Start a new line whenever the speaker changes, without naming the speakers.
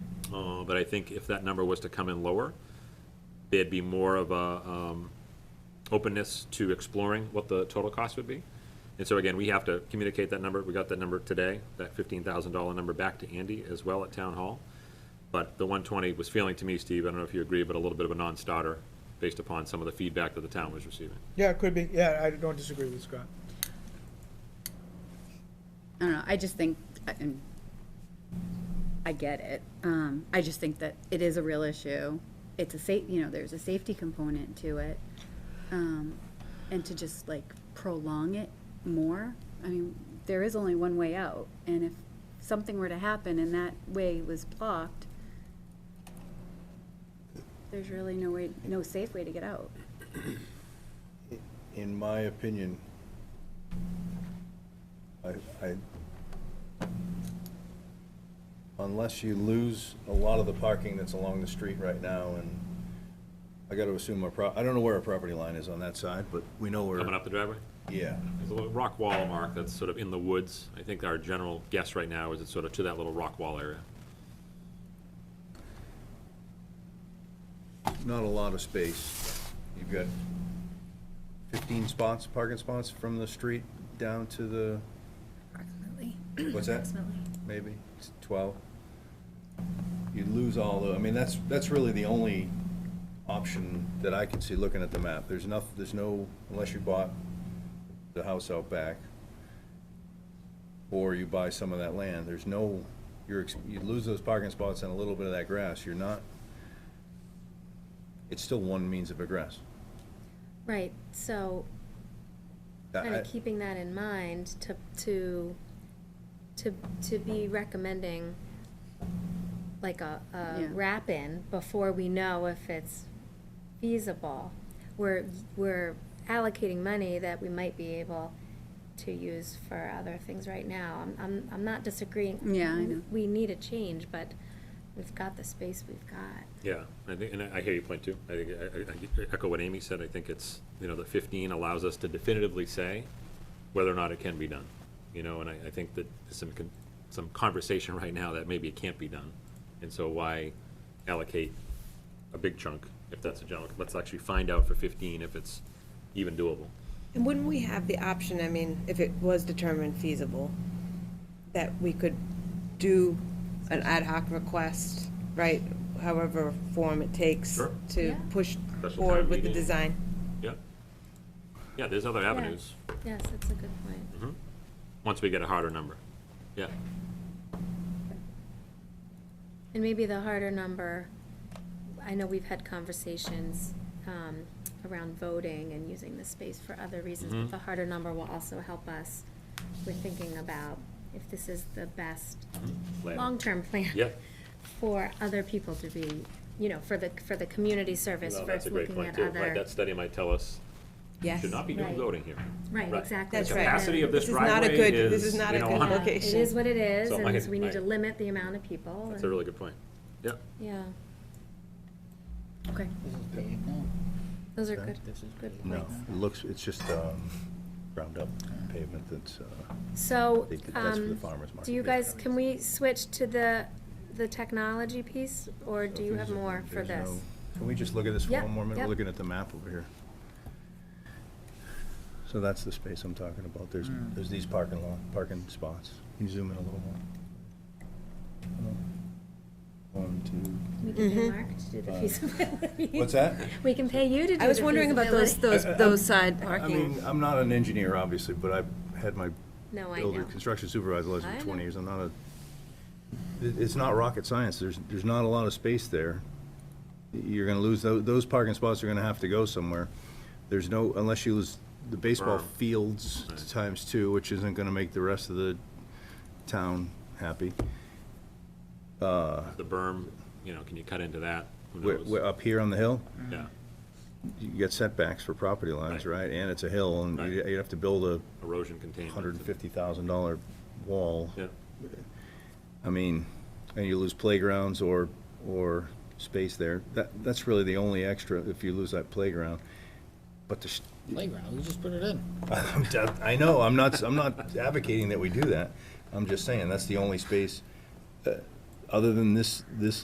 Uh, But I think if that number was to come in lower, there'd be more of a um, openness to exploring what the total cost would be. And so again, we have to communicate that number. We got that number today, that $15,000 number back to Andy as well at Town Hall. But the 120 was feeling to me, Steve, I don't know if you agree, but a little bit of a non-starter based upon some of the feedback that the town was receiving.
Yeah, it could be, yeah, I don't disagree with Scott.
I don't know, I just think, I- and I get it. Um, I just think that it is a real issue. It's a sa, you know, there's a safety component to it. Um, and to just like prolong it more, I mean, there is only one way out. And if something were to happen and that way was blocked, there's really no way, no safe way to get out.
In my opinion, I, I, unless you lose a lot of the parking that's along the street right now, and I gotta assume our pro, I don't know where our property line is on that side, but we know where.
Coming up the driveway?
Yeah,
There's a little rock wall mark that's sort of in the woods. I think our general guess right now is it's sort of to that little rock wall area.
not a lot of space. You've got fifteen spots, parking spots from the street down to the,
Approximately.
what's that? maybe, it's twelve. You'd lose all the, I mean, that's, that's really the only option that I can see looking at the map. There's enough, there's no, unless you bought the house out back, or you buy some of that land, there's no, you're, ex- you lose those parking spots and a little bit of that grass, you're not, it's still one means of egress.
Right, so
I-
kind
I-
of keeping that in mind to, to, to, to be recommending like a, a
Yeah.
wrap-in before we know if it's feasible. We're, we're allocating money that we might be able to use for other things right now. I'm, I'm, I'm not disagreeing.
Yeah, I know.
We need a change, but we've got the space we've got.
Yeah, I think, and I I hear your point too. I think, I, I- I echo what Amy said. I think it's, you know, the fifteen allows us to definitively say whether or not it can be done. You know, and I, I think that there's some, con- some conversation right now that maybe it can't be done. And so why allocate a big chunk if that's a general, let's actually find out for fifteen if it's even doable.
And wouldn't we have the option, I mean, if it was determined feasible, that we could do an ad hoc request, right, however form it takes
Sure.
to
Yeah.
push
town
forward with the
meeting.
design?
Yeah. Yeah, there's other avenues,
Yes, that's a good point.
once we get a harder number. Yeah,
And maybe the harder number, I know we've had conversations um, around voting and using the space for other reasons,
Mm-hmm.
but the harder number will also help us with thinking about if this is the best
Plan.
long-term plan
yeah,
for other people to be, you know, for the, for the community service,
Well,
for
that's a great
looking
point
at
too. Right,
other.
that study might tell us,
Yes.
should not be doing
Right.
voting here.
Right, exactly.
That's
The
right.
capacity of this
This is not a
driveway
good- this
is,
is
you
not a good
know,
look.
Yeah, Um, It
Location.
is what it is,
So my-
and we need to
my-
limit the amount of people.
that's a
and-
really good point. Yeah,
Yeah,
Okay.
those are good, good
No,
points.
it looks, it's just, um, ground up pavement that's, uh,
So,
They did- that's for the
um,
farmer's
do
market,
you
yeah.
guys, can we switch to the, the technology piece, or do you have more for
There's
this?
no- Can we just look at this for
Yep,
one more minute?
yep.
We're looking at the map over here. So that's the space I'm talking about. There's, there's these parking lot, parking spots. Can you zoom in a little more? One, two.
We can pay Mark to do the feasibility.
Uh, What's that?
We can pay you to do the feasibility.
I was wondering about those, those, those side
I
parking.
mean, I'm not an engineer, obviously, but I've had my
No, I
builder,
know.
construction supervisor license
I
for
know.
twenty years. I'm not a, it- it's not rocket science. There's, there's not a lot of space there. You're gonna lose, tho- those parking spots are gonna have to go somewhere. There's no, unless you lose the baseball
Berm.
fields times two, which isn't gonna make the rest of the town happy.
the berm, you know, can you cut into that? Who
We're,
knows?
we're up here on the hill.
Yeah,
You get setbacks for property lines,
Right.
right? And it's a hill and
Right.
you- you'd have to build a
erosion containment.
hundred and fifty thousand dollar wall.
Yeah,
I mean, and you lose playgrounds or, or space there. That, that's really the only extra if you lose that playground. But the, sh-
Playground, we just put it in.
I'm d- I know, I'm not, I'm not advocating that we do that. I'm just saying, that's the only space, uh, other than this, this